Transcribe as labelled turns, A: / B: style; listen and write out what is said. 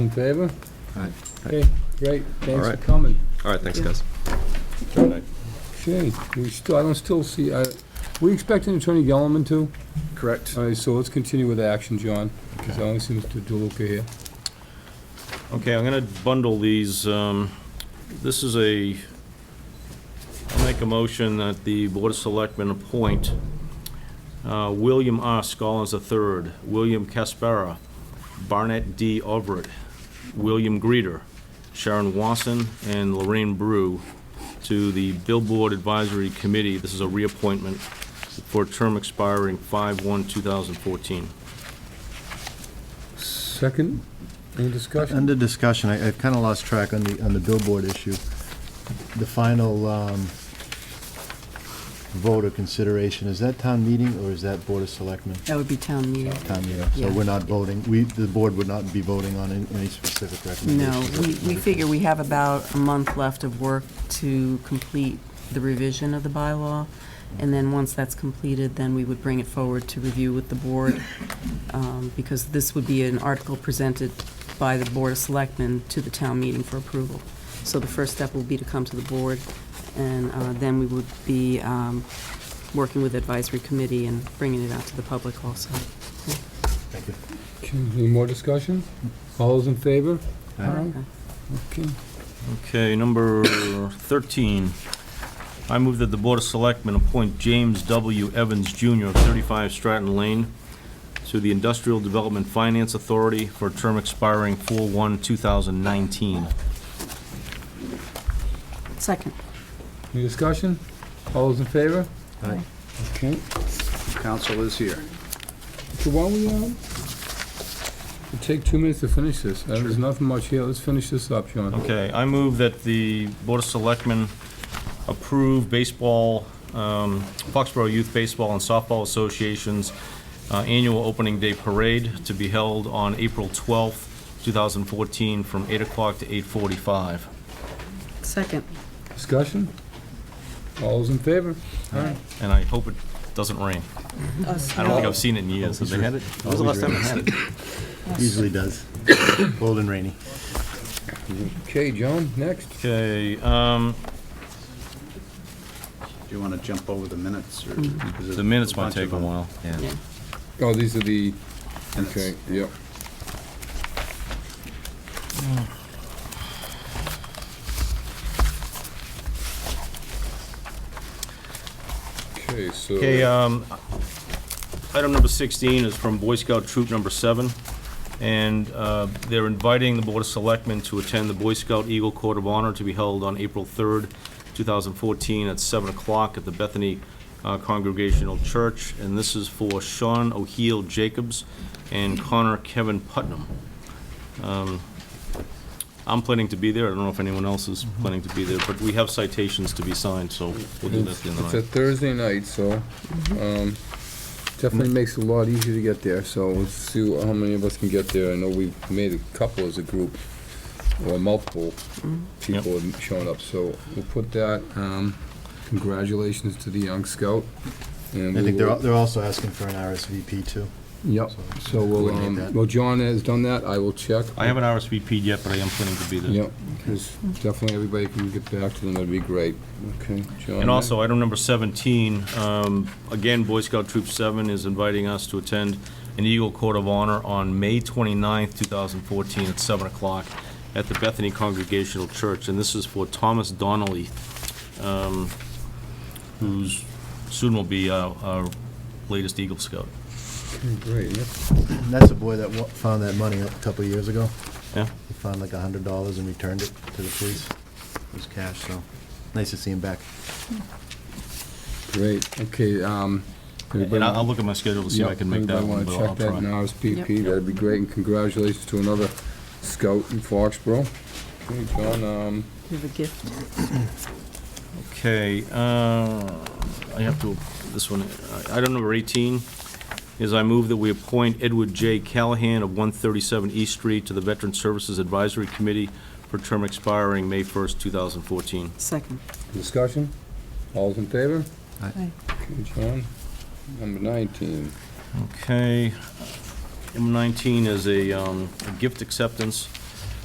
A: In favor?
B: Aye.
A: Okay, great, thanks for
B: right.
A: coming.
B: All right, thanks, guys.
A: Okay, we still, I don't still see, I, we expecting Attorney Gellerman too?
B: Correct.
A: All right, so let's continue with action, John, because I only see Mr. DeLuca here.
C: Okay, I'm going to bundle these. Um, This is a, I'll make a motion that the Board of Selectmen appoint uh, William R. Scollins III, William Caspera, Barnett D. Everett, William Greeter, Sharon Wasson, and Lorraine Brew to the Billboard Advisory Committee. This is a reappointment for a term expiring 5/1/2014.
A: Second, any discussion?
B: Under discussion, I, I've kind of lost track on the, on the billboard issue. The final, um, vote or consideration, is that town meeting or is that Board of Selectmen?
D: That would be town meeting.
B: Town meeting, so
D: Yeah.
B: we're not voting, we, the board would not be voting on any any specific
D: No,
B: recommendations.
D: we, we figure we have about a month left of work to complete the revision of the bylaw, and then once that's completed, then we would bring it forward to review with the board, um, because this would be an article presented by the Board of Selectmen to the town meeting for approval. So the first step will be to come to the board, and uh, then we would be um, working with advisory committee and bringing it out to the public also.
B: Thank you.
A: Okay, Any more discussion? All those in favor?
B: Aye.
D: Uh,
A: Okay,
C: Okay, number 13. I move that the Board of Selectmen appoint James W. Evans Jr. of 35 Stratton Lane to the Industrial Development Finance Authority for a term expiring 4/1/2019.
D: Second.
A: any discussion? All those in favor?
B: Aye.
A: Okay,
E: Council is here.
A: so why don't we, um, we'll take two minutes to finish this. Uh, There's nothing much here, let's finish this up, John.
C: Okay, I move that the Board of Selectmen approve baseball, um, Foxborough Youth Baseball and Softball Association's uh, annual opening day parade to be held on April 12th, 2014, from 8 o'clock to 8:45.
D: Second.
A: Discussion? All those in favor? Aye.
C: and I hope it doesn't rain. I don't think I've seen it in years. Have they had it? When was the last time they had it?
B: Usually does. Cold and rainy.
A: Okay, John, next.
C: Okay, um,
E: Do you want to jump over the minutes? or- because there's
C: the minutes might
E: bunch of
C: take a
E: them.
C: while.
D: Yeah.
A: Oh, these are the,
E: Minutes.
A: okay, yep. Okay, so.
C: Okay, um, item number 16 is from Boy Scout Troop Number 7, and uh, they're inviting the Board of Selectmen to attend the Boy Scout Eagle Court of Honor to be held on April 3rd, 2014, at 7 o'clock at the Bethany uh, Congregational Church, and this is for Sean O'Heal Jacobs and Connor Kevin Putnam. Um, I'm planning to be there, I don't know if anyone else is planning to be there, but we have citations to be signed, so we'll do that at the end of
A: It's
C: the
A: a
C: night.
A: Thursday night, so, um, definitely makes it a lot easier to get there, so let's see wh- how many of us can get there. I know we made a couple as a group, or multiple people have shown up, so we'll put that, um, congratulations to the young scout. and
B: I
A: we
B: think they're,
A: will-
B: al- they're also asking for an RSVP too.
A: Yep, so we'll,
B: Coordinate
A: um,
B: that.
A: well, John has done that, I will check.
C: I haven't RSVP'd yet, but I am planning to be there.
A: Yep, 'cause definitely everybody can get back to them, that'd be great. Okay, John.
C: And also, item number 17, um, again, Boy Scout Troop 7 is inviting us to attend an Eagle Court of Honor on May 29th, 2014, at 7 o'clock at the Bethany Congregational Church, and this is for Thomas Donnelly, um, who's soon will be uh, our latest Eagle Scout.
A: Great, yep.
B: And that's a boy that wa- found that money a couple of years ago.
C: Yeah?
B: He found like a hundred dollars and returned it to the police. It was cash, so nice to see him back.
A: Great, okay, um.
C: And I'll I'll look at my schedule to see if I can make that one, but
A: Everybody
C: I'll try.
A: wanna check that in RSVP,
D: Yep.
A: that'd be great, and congratulations to another scout in Foxborough. Okay, John, um,
D: You have a gift.
C: Okay, uh, I have to, this one, uh, item number 18 is I move that we appoint Edward J. Callahan of 137 East Street to the Veteran Services Advisory Committee for term expiring May 1st, 2014.
D: Second.
A: discussion, all's in favor?
D: Aye.
A: Okay, John, number nineteen,
C: Okay, number 19 is a um, a gift acceptance